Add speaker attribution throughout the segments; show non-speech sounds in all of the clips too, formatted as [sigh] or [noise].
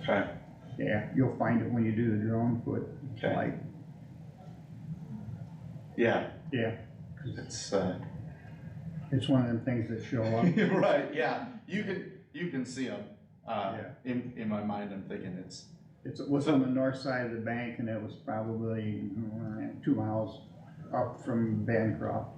Speaker 1: Okay,
Speaker 2: Yeah, you'll find it when you do the drone foot,
Speaker 1: okay,
Speaker 2: like,
Speaker 1: yeah, [laughs]
Speaker 2: yeah,
Speaker 1: it's, uh, [laughs]
Speaker 2: it's one of them things that show up.
Speaker 1: you're right, yeah, you can, you can see them. Uh,
Speaker 2: Yeah.
Speaker 1: in, in my mind, I'm thinking it's,
Speaker 2: It's, it was on the north side of the bank and it was probably mm, two miles up from Bancroft.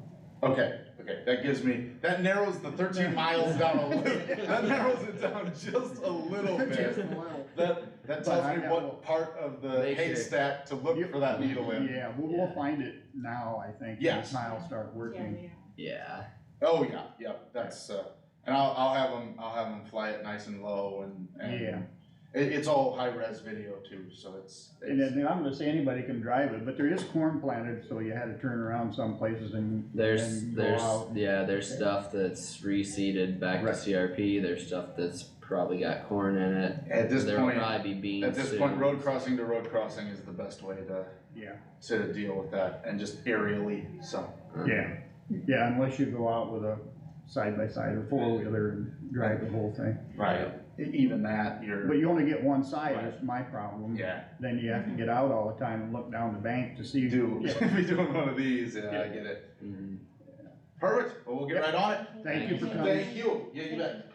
Speaker 1: okay, okay, that gives me, that narrows the
Speaker 2: [laughs]
Speaker 1: thirteen miles down a little, that narrows it down just a little
Speaker 2: [laughs] Just
Speaker 1: bit.
Speaker 2: a little.
Speaker 1: That, that tells
Speaker 2: I
Speaker 1: me
Speaker 2: know.
Speaker 1: what part of the
Speaker 3: They should-
Speaker 1: haystack to look for that needle in.
Speaker 2: Yeah, we'll, we'll find it now, I think.
Speaker 1: Yes.
Speaker 2: When I'll start
Speaker 4: Yeah,
Speaker 2: working.
Speaker 4: yeah.
Speaker 3: Yeah,
Speaker 1: Oh, yeah, yeah, that's, uh, and I'll, I'll have them, I'll have them fly it nice and low and, and.
Speaker 2: Yeah.
Speaker 1: It, it's all high res video too, so it's,
Speaker 2: And
Speaker 1: it's,
Speaker 2: then I'm gonna say anybody can drive it, but there is corn planted, so you had to turn around some places and.
Speaker 3: there's,
Speaker 2: and go
Speaker 3: there's,
Speaker 2: out.
Speaker 3: yeah, there's
Speaker 2: Okay.
Speaker 3: stuff that's reseeded back to
Speaker 2: Right.
Speaker 3: CRP, there's stuff that's probably got corn in it.
Speaker 1: at this
Speaker 3: There will
Speaker 1: point,
Speaker 3: probably be beans
Speaker 1: at this point,
Speaker 3: soon.
Speaker 1: road crossing to road crossing is the best way to,
Speaker 2: Yeah,
Speaker 1: to deal with that and just aerially, so.
Speaker 3: Uh,
Speaker 2: yeah, yeah, unless you go out with a side by side or four wheeler and drive the whole thing.
Speaker 1: E- Even that,
Speaker 2: But
Speaker 1: you're,
Speaker 2: you only get one side, that's my problem.
Speaker 1: yeah,
Speaker 2: Then you have to get out all the time and look down the bank to see.
Speaker 1: you do, [laughs]
Speaker 2: Yeah.
Speaker 1: be doing one of these, yeah, I get it.
Speaker 3: Mhm.
Speaker 1: Perfect, well, we'll get right on it.
Speaker 2: Thank you for coming.
Speaker 1: Thank you, yeah, you bet.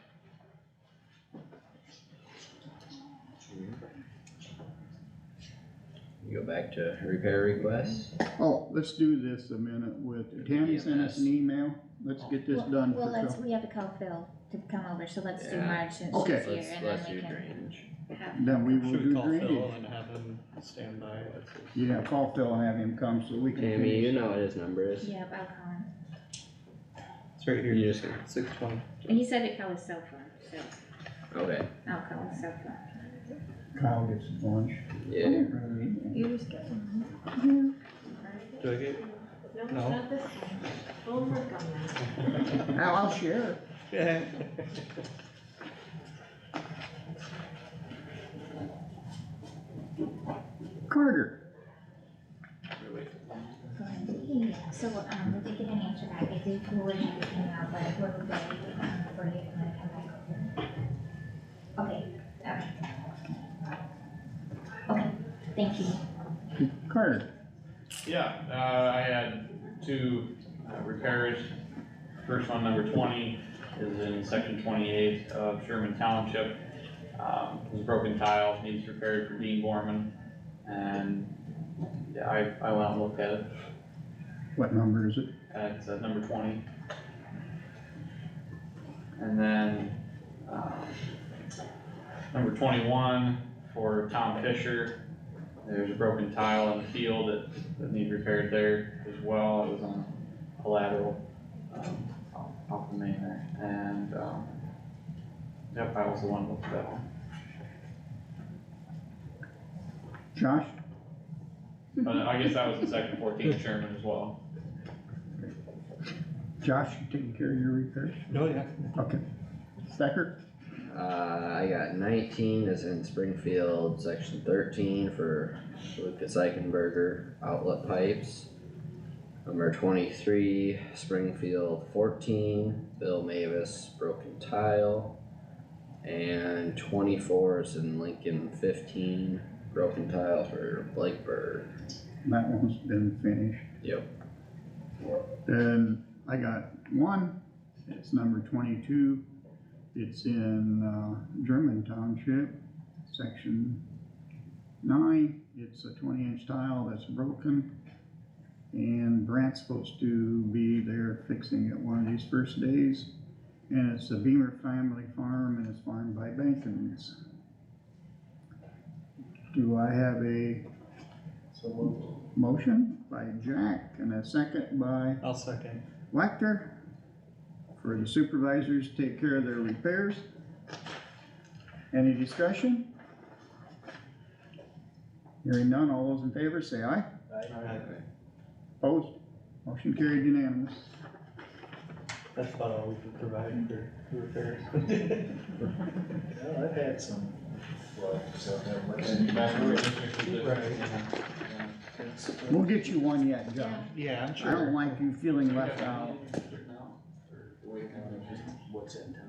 Speaker 3: You go back to repair requests,
Speaker 2: Oh, let's do this a minute with, Tammy sent us an email, let's get this done
Speaker 4: Well,
Speaker 2: for
Speaker 4: let's,
Speaker 2: Phil.
Speaker 4: we have to call Phil to come over, so let's do
Speaker 3: Yeah.
Speaker 4: March since
Speaker 2: Okay.
Speaker 4: she's
Speaker 3: let's,
Speaker 4: here, and
Speaker 3: let's
Speaker 4: then we
Speaker 3: do
Speaker 4: can
Speaker 3: drainage.
Speaker 4: have.
Speaker 2: Then we will
Speaker 5: Should we
Speaker 2: do
Speaker 5: call Phil
Speaker 2: drainage.
Speaker 5: and have him stand by? Let's see.
Speaker 2: Yeah, call Phil and have him come so we can
Speaker 3: Tammy, you
Speaker 2: finish.
Speaker 3: know what his number is,
Speaker 4: Yep, I'll call him,
Speaker 5: It's right here.
Speaker 3: You just-
Speaker 5: Six twenty.
Speaker 4: and he said to call his cell phone, so
Speaker 3: okay,
Speaker 4: I'll call his cell phone.
Speaker 2: Kyle gets his lunch.
Speaker 3: yeah,
Speaker 2: Really?
Speaker 6: Yours got one,
Speaker 5: Do I get?
Speaker 6: huh?
Speaker 5: No.
Speaker 6: not this one. We'll work on that.
Speaker 2: I'll, I'll share.
Speaker 5: Yeah.
Speaker 2: Carter,
Speaker 4: Yeah, so, um, we did get an answer back, I did forward everything out, but we're ready, um, for you to come back over. Okay, alright. Okay, thank you.
Speaker 2: Carter,
Speaker 7: Yeah, uh, I had two uh, repairs. First one, number twenty, is in section twenty-eight of Sherman Township. Um, it was broken tile, needs repaired for Dean Gorman, and, yeah, I, I went out and looked at it,
Speaker 2: what number is it?
Speaker 7: at uh, number twenty. And then, um, number twenty-one for Tom Fisher, there's a broken tile in the field that, that need repaired there as well, it was on a lateral, um, off- off the main there, and, um, yep, I was the one with that one.
Speaker 2: Josh?
Speaker 7: But I guess that was the second fourteen Sherman as well.
Speaker 2: Josh, you taking care of your repairs?
Speaker 5: [laughs] No, yeah.
Speaker 2: Okay. Stecker,
Speaker 3: uh, I got nineteen is in Springfield, section thirteen for Lucas Eichenberger outlet pipes. Number twenty-three, Springfield fourteen, Bill Mavis, broken tile. And twenty-four is in Lincoln fifteen, broken tile for Blakeburg.
Speaker 2: that one's been finished.
Speaker 3: Yep.
Speaker 2: Then I got one, it's number twenty-two. It's in, uh, German Township, section nine. It's a twenty-inch tile that's broken. And Brant's supposed to be there fixing it one of these first days. And it's the Beamer Family Farm and it's farmed by Bankins. Do I have a motion by Jack and a second by
Speaker 5: I'll second.
Speaker 2: Wactor for the supervisors to take care of their repairs. Any discussion? Hearing none, all those in favor say aye. Opposed? Motion carried unanimous.
Speaker 5: That's about all we can provide for repairs.
Speaker 8: Well, I've had some, well, so that works.
Speaker 2: We'll get you one yet, John.
Speaker 4: Yeah.
Speaker 5: [laughs] Yeah, I'm
Speaker 2: I don't like you feeling left out.
Speaker 8: Wait, kind of just what's in town.